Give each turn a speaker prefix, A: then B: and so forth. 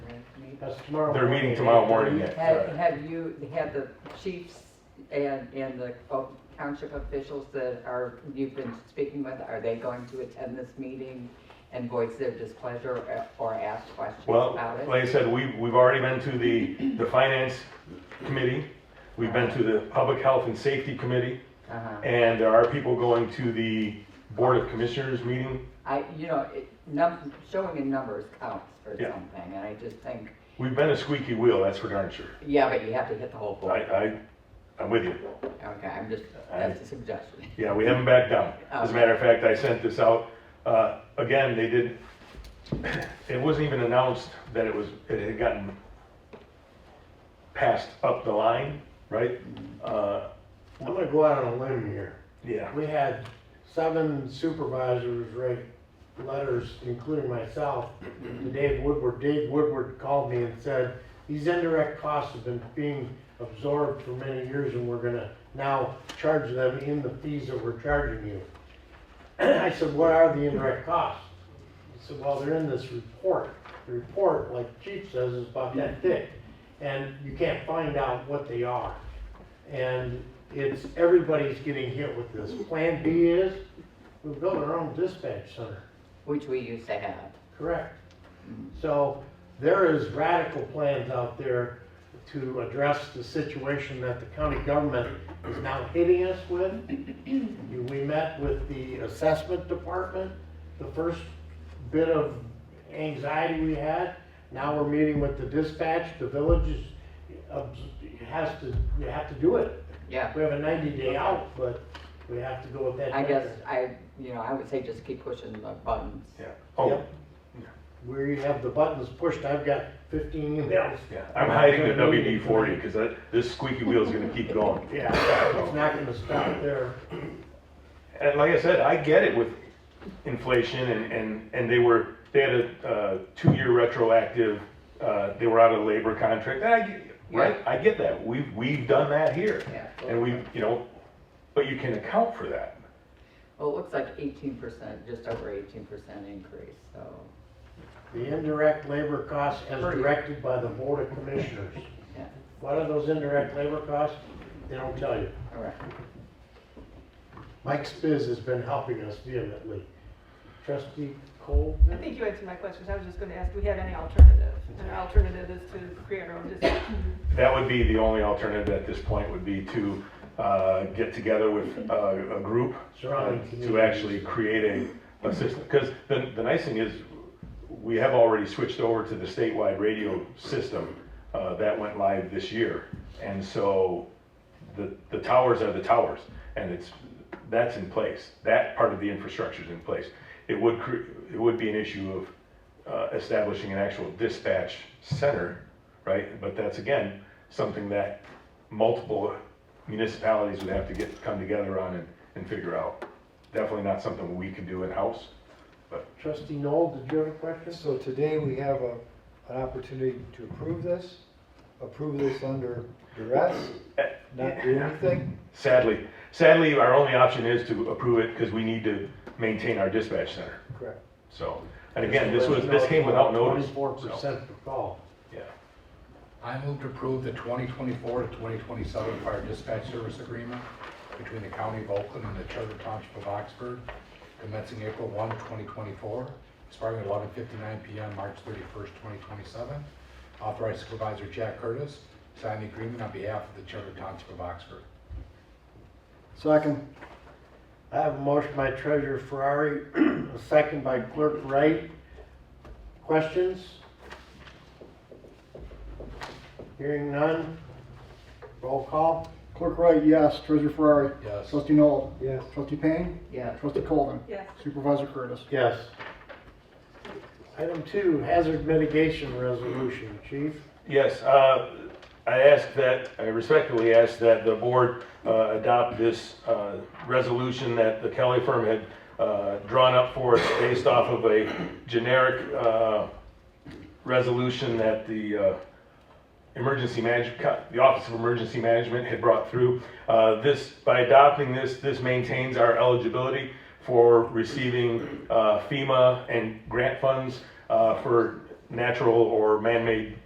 A: That's tomorrow.
B: They're meeting
A: morning at
B: tomorrow
A: 8:30.
B: morning at-
C: Have, have you, have the chiefs and, and the o- township officials that are, you've been speaking with, are they going to attend this meeting and voice their displeasure or- or ask questions
B: Well,
C: about it?
B: like I said, we, we've already been to the, the finance committee, we've been to the public health and safety committee,
C: Uh-huh.
B: and there are people going to the board of commissioners meeting.
C: I, you know, it, num, showing in numbers counts for
B: Yeah.
C: something, and I just think,
B: We've been a squeaky wheel, that's for darn sure.
C: yeah, but you have to hit the whole
B: I,
C: board.
B: I, I'm with you.
C: Okay, I'm just,
B: I-
C: that's a suggestion.
B: Yeah, we haven't backed down. As a matter of fact, I sent this out, uh, again, they did, it wasn't even announced that it was, it had gotten passed up the line, right? Uh,
A: I'm gonna go out on a limb here.
B: yeah,
A: We had seven supervisors write letters, including myself, to Dave Woodward. Dave Woodward called me and said, these indirect costs have been being absorbed for many years and we're gonna now charge them in the fees that we're charging you. I said, what are the indirect costs? He said, well, they're in this report. The report, like Chief says, is about that thick. And you can't find out what they are. And it's, everybody's getting hit with this. Plan B is, we build our own dispatch center,
C: Which we used to have.
A: correct? So there is radical plans out there to address the situation that the county government is now hitting us with. We met with the assessment department, the first bit of anxiety we had. Now we're meeting with the dispatch, the village is, uh, has to, you have to do it.
C: Yeah.
A: We have a ninety day out, but we have to go with that.
C: I guess
A: deadline.
C: I, you know, I would say just keep pushing the buttons.
B: yeah. Oh,
A: Yep. We have the buttons pushed, I've got fifteen emails.
B: yeah, I'm hiding the WD forty, cause that, this squeaky wheel's gonna keep going.
A: Yeah, it's not gonna stop there.
B: And like I said, I get it with inflation and, and, and they were, they had a, uh, two-year retroactive, uh, they were out of labor contract, and I get, right? I get that, we've, we've done that here.
C: Yeah.
B: And we, you know, but you can account for that.
C: Well, it looks like eighteen percent, just over eighteen percent increase, so.
A: The indirect labor costs as
C: Pretty.
A: directed by the board of commissioners.
C: Yeah.
A: What are those indirect labor costs? They don't tell you.
C: All right.
A: Mike Spiz has been helping us vehemently. Trustee
D: I
A: Colvin?
D: think you answered my questions. I was just gonna ask, do we have any alternative? An alternative is to create our own district.
B: That would be the only alternative at this point, would be to, uh, get together with uh, a, a group
A: Surrounding
B: to actually create a, a system. Because the, the nice thing is, we have already switched over to the statewide radio system uh, that went live this year. And so the, the towers are the towers, and it's, that's in place. That part of the infrastructure is in place. It would, cre- it would be an issue of uh, establishing an actual dispatch center, right? But that's again, something that multiple municipalities would have to get, come together on and, and figure out. Definitely not something we can do in-house.
A: Trustee Noel, did you have a question?
E: So today we have a, an opportunity to approve this, approve this under duress, not do anything?
B: Sadly, sadly, our only option is to approve it because we need to maintain our dispatch center.
E: Correct.
B: So, and again, this was, this came without notice.
A: Twenty-four
B: so,
A: percent per call.
B: Yeah.
F: I move to approve the 2024 to 2027 fire dispatch service agreement between the County of Oakland and the Charter Township of Oxford, commencing April 1, 2024, expiring at 11:59 PM, March 31st, 2027. Authorize Supervisor Jack Curtis to sign the agreement on behalf of the Charter Township of Oxford.
E: Second,
A: I have a motion by Treasurer Ferrari, a second by Clerk Wright. Questions? Hearing none. Roll call.
G: Clerk Wright, yes. Treasurer Ferrari.
F: Yes.
G: Trustee Noel.
E: yes.
G: Trustee Payne.
C: Yeah.
G: Trustee Colvin.
D: Yes,
G: Supervisor Curtis.
A: Yes. Item two, hazard mitigation resolution, Chief.
B: Yes, uh, I ask that, I respectfully ask that the board uh, adopt this uh, resolution that the Kelly firm had uh, drawn up for us based off of a generic uh, resolution that the uh, emergency manage, the Office of Emergency Management had brought through. Uh, This, by adopting this, this maintains our eligibility for receiving uh, FEMA and grant funds uh, for natural or man-made